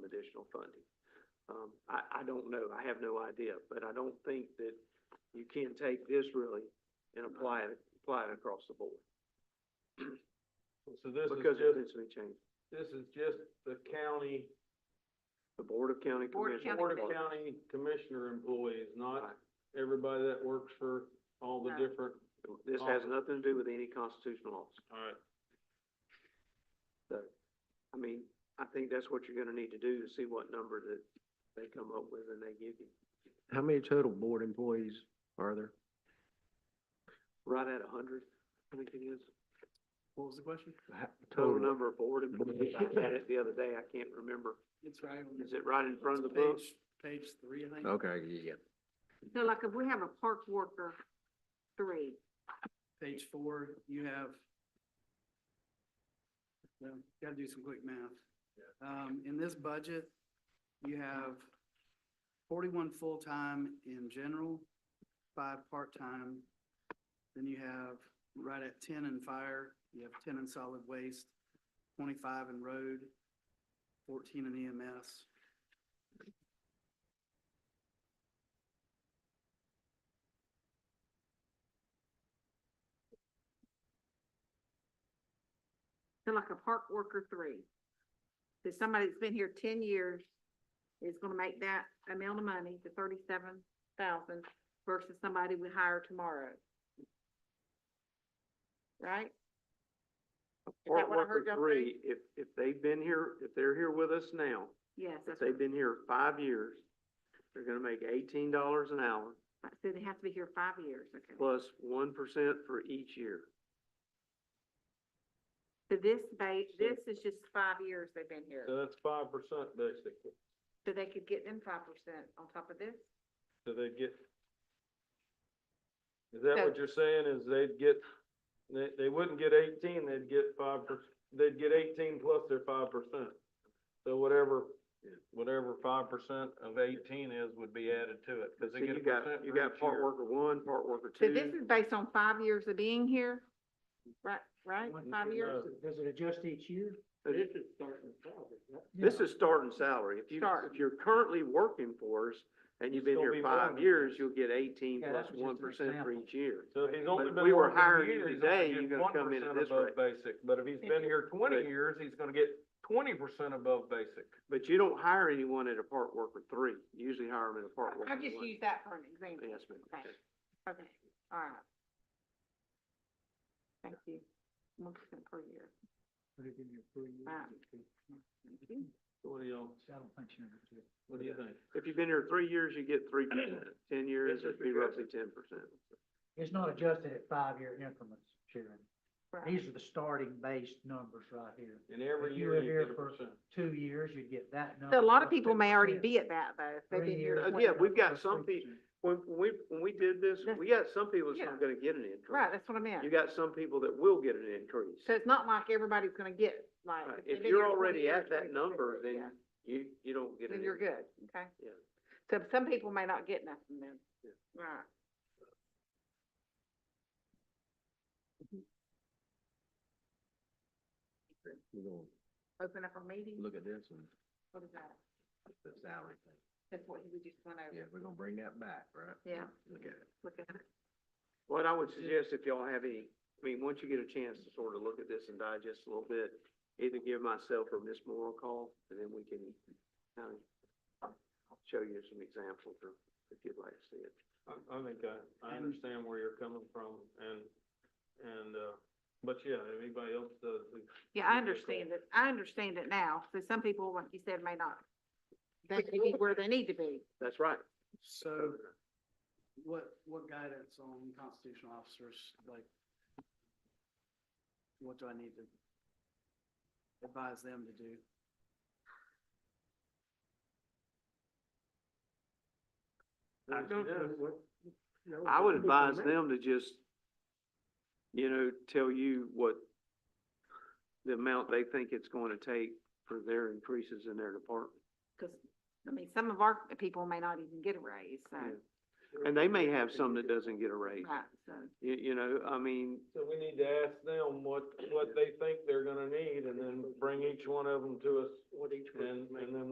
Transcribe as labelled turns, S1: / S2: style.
S1: additional funding. Um, I, I don't know, I have no idea, but I don't think that you can take this really and apply it, apply it across the board,
S2: So this is
S1: because it
S2: just,
S1: potentially changes.
S2: this is just the county,
S1: The Board of County
S3: Board of
S1: Commissioners.
S2: Board of
S3: Commissioners.
S2: County Commissioner employees, not
S1: Right.
S2: everybody that works for all the
S3: No.
S2: different,
S1: This has nothing to do with any constitutional laws.
S2: alright.
S1: So, I mean, I think that's what you're gonna need to do to see what number that they come up with and they give you.
S4: How many total board employees are there?
S1: Right at a hundred, I think it is.
S5: What was the question?
S4: Ha-
S1: Total number of board employees. I had it the other day, I can't remember.
S5: It's right on.
S1: Is it right in front of the
S5: it's
S1: book?
S5: Page page three, I think.
S4: Okay, yeah.
S3: So like if we have a park worker, three,
S5: Page four, you have. Well, gotta do some quick math. Um, in this budget, you have forty-one full-time in general, five part-time. Then you have right at ten in fire, you have ten in solid waste, twenty-five in road, fourteen in E EMS.
S3: so like a park worker, three. So somebody that's been here ten years is gonna make that amount of money, the thirty-seven thousand versus somebody we hire tomorrow. Right?
S1: Part
S3: what I
S1: worker
S3: heard y'all
S1: three, if, if they've been here, if they're here with us now,
S3: Yes,
S1: if
S3: that's,
S1: they've been here five years, they're gonna make eighteen dollars an hour
S3: right. so they have to be here five years, okay.
S1: plus one percent for each year.
S3: So this ba- this is just five years they've been here,
S2: So that's five percent basically,
S3: so they could get them five percent on top of this?
S2: so they get. Is that
S3: So-
S2: what you're saying, is they'd get, they, they wouldn't get eighteen, they'd get five per, they'd get eighteen plus their five percent. So whatever, whatever five percent of eighteen is would be added to it, cause
S1: So
S2: they get a
S1: you got,
S2: percent
S1: you
S2: for
S1: got
S2: each
S1: part
S2: year.
S1: worker one, part worker
S3: So this
S1: two.
S3: is based on five years of being here, right, right, five years?
S5: Does it adjust each year?
S1: So this-
S5: is starting salary,
S1: This is starting salary. If you,
S3: Start.
S1: if you're currently working for us and you've been
S2: Still
S1: here
S2: be
S1: five
S2: warming.
S1: years, you'll get eighteen
S5: Yeah,
S1: plus
S5: that was just an
S1: one percent for
S5: example.
S1: each year.
S2: So if he's
S1: But
S2: only
S1: if
S2: been
S1: we were
S2: working a
S1: hiring you
S2: year, he's
S1: today,
S2: only
S1: you're
S2: getting
S1: gonna
S2: one
S1: come in at
S2: percent
S1: this
S2: above
S1: rate.
S2: basic, but if he's been here twenty
S1: Right.
S2: years, he's gonna get twenty percent above basic.
S1: But you don't hire anyone at a part worker three. You usually hire them at a part worker
S3: I just
S1: one.
S3: use that for an example.
S1: Yes, ma'am.
S3: Okay, okay, all right. Thank you. One percent per year. Right. Thank you.
S2: What do y'all, what do you think?
S1: If you've been here three years, you get three percent. Ten years,
S2: Yes,
S1: it'd
S2: sir.
S1: be roughly ten percent.
S6: It's not adjusted at five-year increments, Sharon.
S3: Right.
S6: These are the starting base numbers right here.
S2: And every
S6: If you
S2: year
S6: were
S2: you
S6: here
S2: get a
S6: for-
S2: percent.
S6: Two years, you'd get that number.
S3: So a lot of
S6: plus
S3: people may already
S6: 2%.
S3: be at that though, if they've
S6: Three
S3: been here
S6: years,
S1: Uh,
S3: twenty.
S1: yeah, we've got
S6: plus
S1: some pe-
S6: 3%.
S1: When, when we, when we did this,
S3: That's-
S1: we got some people that's
S3: yeah.
S1: not gonna get an increase.
S3: Right, that's what I meant.
S1: You got some people that will get an increase.
S3: So it's not like everybody's gonna get like.
S1: Right.
S3: they've
S1: If
S3: been
S1: you're
S3: here 20
S1: already
S3: years,
S1: at that
S3: 20%,
S1: number,
S3: yeah,
S1: then you, you don't get an
S3: Then
S1: increase.
S3: you're good, okay?
S1: Yeah.
S3: So some people may not get nothing then.
S1: Yeah.
S3: Right.
S4: We're gonna
S3: Open up a meeting,
S4: look at this and
S3: what is that?
S4: the salary thing.
S3: That's what we just went over.
S4: Yeah, we're gonna bring that back, right?
S3: Yeah.
S4: Look at it.
S3: Look at it.
S1: What I would suggest if y'all have any, I mean, once you get a chance to sort of look at this and digest a little bit, either give myself or Miss Moore a call, and then we can kind of show you some examples or if you'd like to see it.
S2: I, I think I, I
S5: And-
S2: understand where you're coming from and, and, uh, but yeah, anybody else does,
S3: Yeah, I
S2: Give me a call.
S3: understand it. I understand it now. So some people, like you said, may not. They may be where they need to be.
S1: That's right.
S5: So what, what guidance on constitutional officers, like, what do I need to advise them to do?
S1: I don't I would advise them to just, you know, tell you what the amount they think it's going to take for their increases in their department.
S3: Because, I mean, some of our people may not even get a raise, so,
S1: And they may have some that doesn't get a raise.
S3: right, so.
S1: You, you know, I mean,
S2: So we need to ask them what, what they think they're gonna need and then bring each one of them to us. What each And, and then